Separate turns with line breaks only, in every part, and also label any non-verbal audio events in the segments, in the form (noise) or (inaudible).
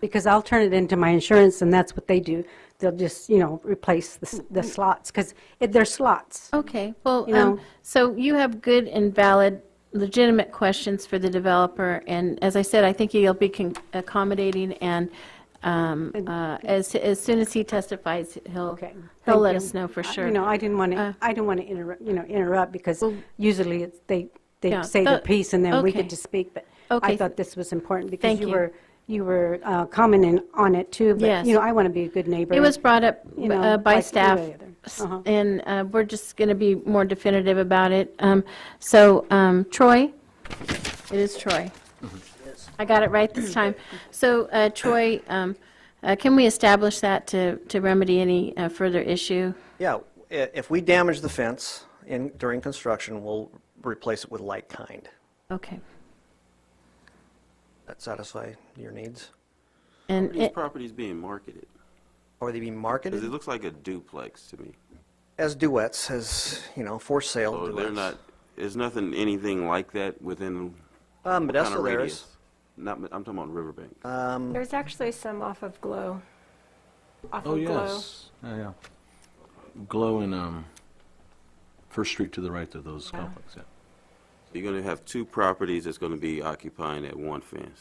Because I'll turn it into my insurance, and that's what they do. They'll just, you know, replace the s- the
Mm-hmm.
slots, because they're slots.
Okay, well,
You
um,
know.
so you have good and valid, legitimate questions for the developer, and as I said, I think you'll be con- accommodating, and um, uh, as as soon as he testifies, he'll,
Okay.
he'll
thank
let
you.
us know for
I-
sure. Uh.
You know, I didn't want to, I didn't want to interrupt, you know, interrupt, because usually it's, they, they
Yeah,
say their
tho-
piece, and then we
okay.
get to speak, but
Okay.
I thought this was important, because
Thank
you
you.
were, you were uh, commenting on it, too.
Yes.
But, you know, I want to be a good neighbor.
It was brought up
you know,
uh, by
like
staff,
any other.
s-
Uh-huh.
and uh, we're just going to be more definitive about it. Um, So um, Troy, it is Troy. I got it right this time. So uh, Troy, um, uh, can we establish that to to remedy any uh, further issue?
Yeah, i- if we damage the fence in, during construction, we'll replace it with like kind.
Okay.
That satisfy your needs?
And
These
it-
properties being marketed,
Or they be
because it
marketed
looks like a duplex to me.
as duets, as, you know, for sale
So
duets?
Oh, they're not, there's nothing, anything like that within
Uh,
what kind
Modesto
of
there
radius?
is.
Not, I'm talking about Riverbank.
There's actually some off of Glow. Off
Oh,
of
yes. Yeah, yeah. Glow and, um, First Street to the right of those complexes, yeah.
You're gonna have two properties that's gonna be occupying that one fence,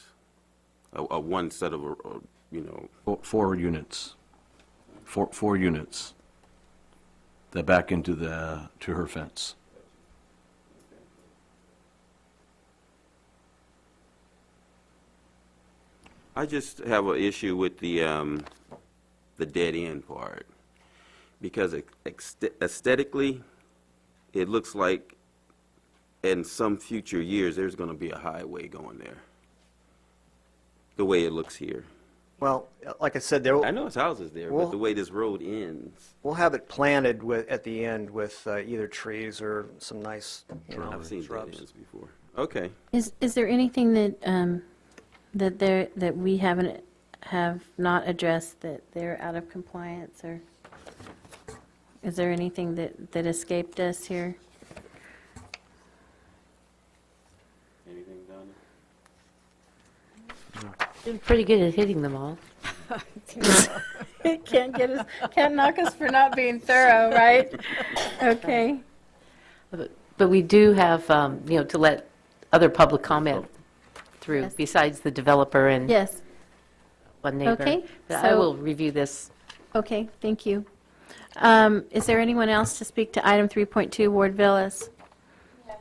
a, a one set of, uh, uh, you know,
Four, four units. Four, four units. That back into the, to her fence.
I just have an issue with the, um, the dead end part. Because ex- ext- aesthetically, it looks like in some future years, there's gonna be a highway going there. The way it looks here.
Well, like I said, there,
I know it's houses there, but
Well-
the way this road ends,
we'll have it planted with, at the end with uh, either trees or some nice, you know,
I've seen dead
shrubs.
ends before. Okay,
is is there anything that, um, that there, that we haven't, have not addressed that they're out of compliance, or is there anything that, that escaped us (laughs) here?
anything done?
Doing pretty good at hitting them all.
Can't get us, can't knock us for not being thorough, right? Okay.
But we do have, um, you know, to let other public comment through,
Yes.
besides the developer and
Yes,
one neighbor.
Okay,
But I
so-
will review this.
okay, thank you. Um, Is there anyone else to speak to item 3.2, Ward Villas?
Yes.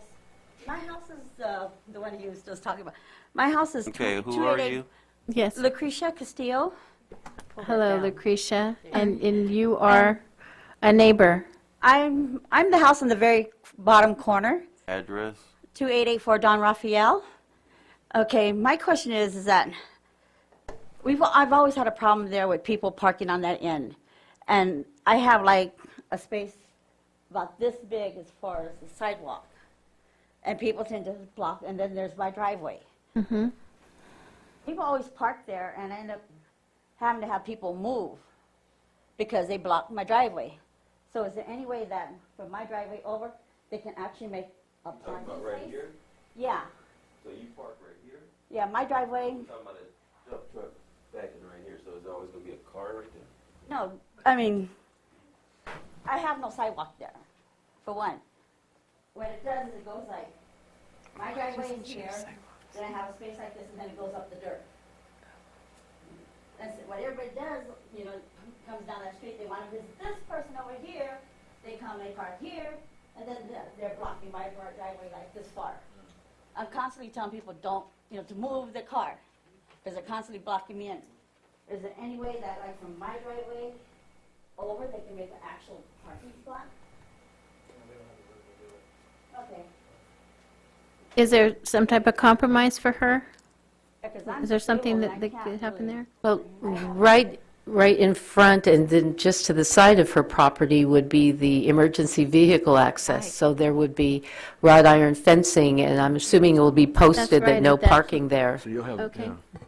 My house is, uh, the one you was just talking about. My house is
Okay,
tw-
who are
288
you?
Yes,
Lucretia Castillo. Pull that
hello,
down.
Lucretia, and, and you are a neighbor.
I'm, I'm the house in the very bottom corner,
Address?
2884 Don Raphael. Okay, my question is, is that we've, I've always had a problem there with people parking on that end. And I have like a space about this big as far as the sidewalk. And people tend to block, and then there's my driveway. People always park there, and I end up having to have people move because they block my driveway. So is there any way that from my driveway over, they can actually make a parking place? Yeah,
So you park right here?
yeah, my driveway,
Talking about a dump truck backing right here, so there's always gonna be a car right there?
no, I mean, I have no sidewalk there, for one. What it does is it goes like, my driveway is here, then I have a space like this, and then it goes up the dirt. That's what everybody does, you know, comes down that street, they wanna visit this person over here, they come, they park here, and then they're- they're blocking my driveway like this far. I'm constantly telling people, don't, you know, to move the car, because they're constantly blocking me in. Is there any way that, like, from my driveway over, they can make an actual parking spot? Okay,
Is there some type of compromise for her?
because I'm
Is there something
disabled
that,
and I
that could
can't
happen
really-
there?
Well, right, right in front and then just to the side of her property would be the emergency vehicle access. So there would be wrought iron fencing, and I'm assuming it will be posted
right,
that no
at that-
parking there.
So you'll have,
Okay.
yeah.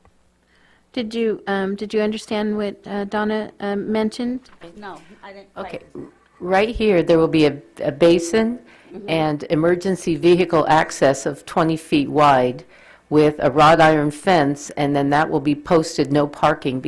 Did you, um, did you understand what uh, Donna um, mentioned?
No, I didn't quite.
Okay, right here, there will be a a basin and emergency vehicle access of 20 feet wide with a wrought iron fence, and then that will be posted, no parking,